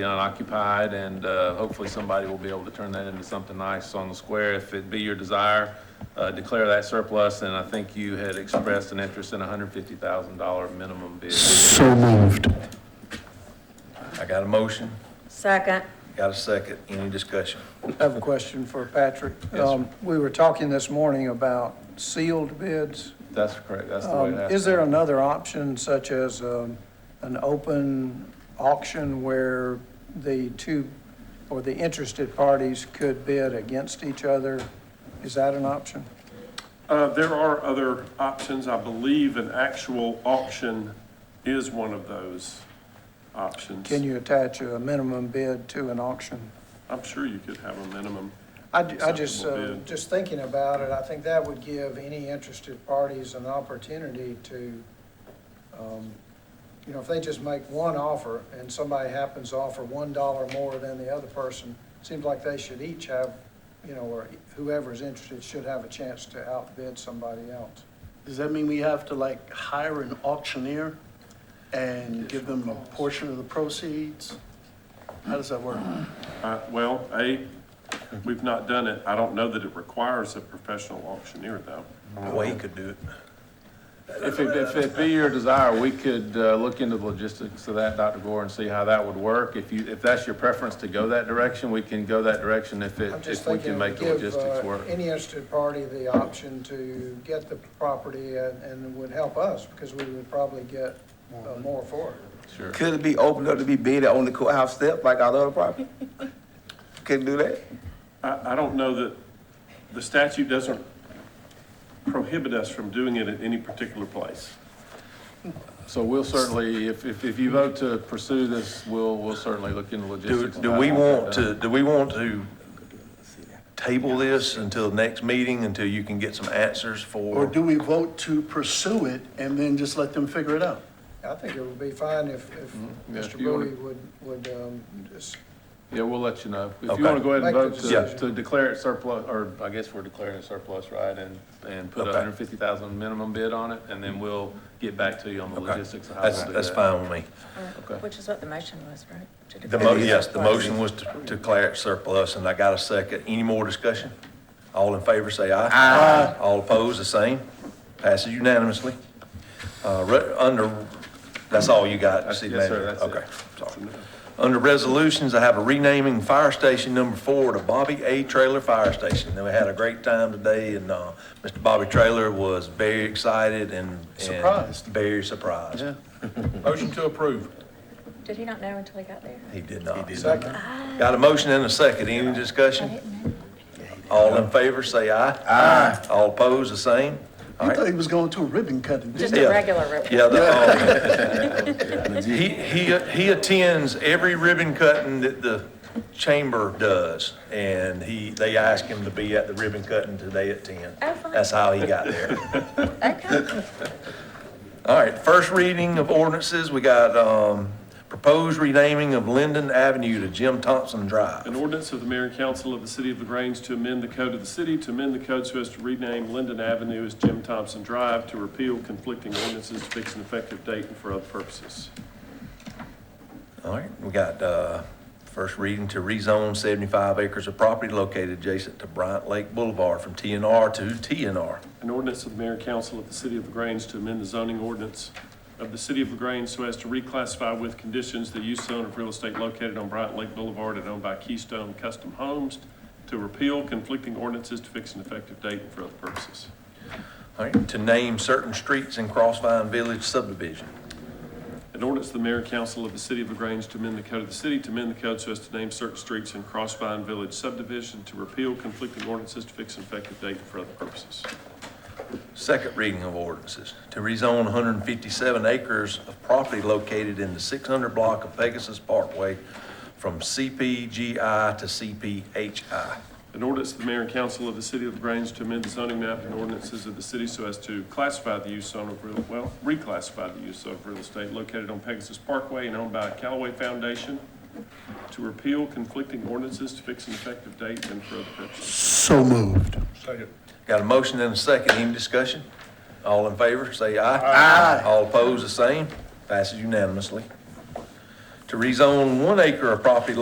be unoccupied, and uh, hopefully somebody will be able to turn that into something nice on the square. If it be your desire, uh, declare that surplus, and I think you had expressed an interest in a hundred fifty thousand dollar minimum bid. So moved. I got a motion, Second. got a second, any discussion? I have a question for Patrick. Yes, sir. Um, We were talking this morning about sealed bids. That's correct, that's the way Um, it has. Is to there be. another option such as um, an open auction where the two or the interested parties could bid against each other? Is that an option? Uh, There are other options. I believe an actual auction is one of those options. Can you attach a minimum bid to an auction? I'm sure you could have a minimum. I, ju- I just, uh, Acceptable bid. just thinking about it, I think that would give any interested parties an opportunity to, um, you know, if they just make one offer and somebody happens to offer one dollar more than the other person, seems like they should each have, you know, or whoever's interested should have a chance to outbid somebody else. Does that mean we have to like hire an auctioneer and give them a portion of the proceeds? How does that work? Uh, Well, A, we've not done it. I don't know that it requires a professional auctioneer, though. Way he could do it. If it, if it be your desire, we could uh, look into the logistics of that, Dr. Gore, and see how that would work. If you, if that's your preference to go that direction, we can go that direction if it, I'm just if we can thinking it make would the give logistics uh, work. any interested party the option to get the property and, and it would help us because we would probably get uh, more for it. Sure. Could it be opened up to be bid on the courthouse step like our other property? Couldn't do that? I, I don't know that, the statute doesn't prohibit us from doing it at any particular place. So we'll certainly, if, if, if you vote to pursue this, we'll, we'll certainly look into Do, logistics. of do how we we'll get want that. to, do we want to table this until next meeting, until you can get some answers Or for? do we vote to pursue it and then just let them figure it out? I think it would be fine if, if Mm-hmm. yeah, if Mr. you wanna- Bowie would, would, um, just, Yeah, we'll let you know. If Okay. you want to go ahead and Make vote the to, decision. to declare it surplus, or I guess we're declaring it surplus, right? And, and put a Okay. hundred fifty thousand minimum bid on it, and then we'll get back to you on the Okay, logistics of how we'll that's, do that's that. fine with me. Okay. Which is what the motion was, right? To The declare mo, it yes, the surplus. motion was to to declare it surplus, and I got a second. Any more discussion? All in favor, say aye. Aye. All opposed, the same. Passes unanimously. Uh, re, under, that's all you got, city Yes, sir, manager? that's it. Okay, sorry. Under resolutions, I have a renaming fire station number four to Bobby A. Trailer Fire Station. And we had a great time today, and, uh, Mr. Bobby Trailer was very excited and. and Surprised. Very surprised. Motion to approve. Did he not know until he got there? He did not. second. Got a motion and a second. Any I discussion? didn't know. All in favor, say aye. Aye. All opposed, the same? All You right. thought he was going to a ribbon cutting. didn't Just you? Yeah. a regular rip. Yeah, the, um, he, he, he attends every ribbon cutting that the chamber does. And he, they asked him to be at the ribbon cutting today at ten. Oh, fine. That's how he got there. Okay. All right, first reading of ordinances, we got, um, proposed renaming of Linden Avenue to Jim Thompson Drive. An ordinance of the mayor and council of the city of LaGrange to amend the code of the city, to amend the code so as to rename Linden Avenue as Jim Thompson Drive, to repeal conflicting ordinances, to fix an effective date and for other purposes. All right, we got, uh, first reading to rezone seventy-five acres of property located adjacent to Bryant Lake Boulevard from TNR to TNR. An ordinance of the mayor and council of the city of LaGrange to amend the zoning ordinance of the city of LaGrange so as to reclassify with conditions the use zone of real estate located on Bryant Lake Boulevard and owned by Keystone Custom Homes, to repeal conflicting ordinances, to fix an effective date and for other purposes. All right, to name certain streets in Crossvine Village subdivision. An ordinance of the mayor and council of the city of LaGrange to amend the code of the city, to amend the code so as to name certain streets in Crossvine Village subdivision, to repeal conflicting ordinances, to fix an effective date and for other purposes. Second reading of ordinances, to rezone one hundred and fifty-seven acres of property located in the six hundred block of Pegasus Parkway from CPGI to CPHI. An ordinance of the mayor and council of the city of LaGrange to amend the zoning map and ordinances of the city so as to classify the use zone of real, well, reclassify the use of real estate located on Pegasus Parkway and owned by Callaway Foundation, to repeal conflicting ordinances, to fix an effective date and for other purposes. So moved. Got a motion and a second, any discussion? All in favor, say aye. Aye. All opposed, the same, passes unanimously. to rezone one acre of property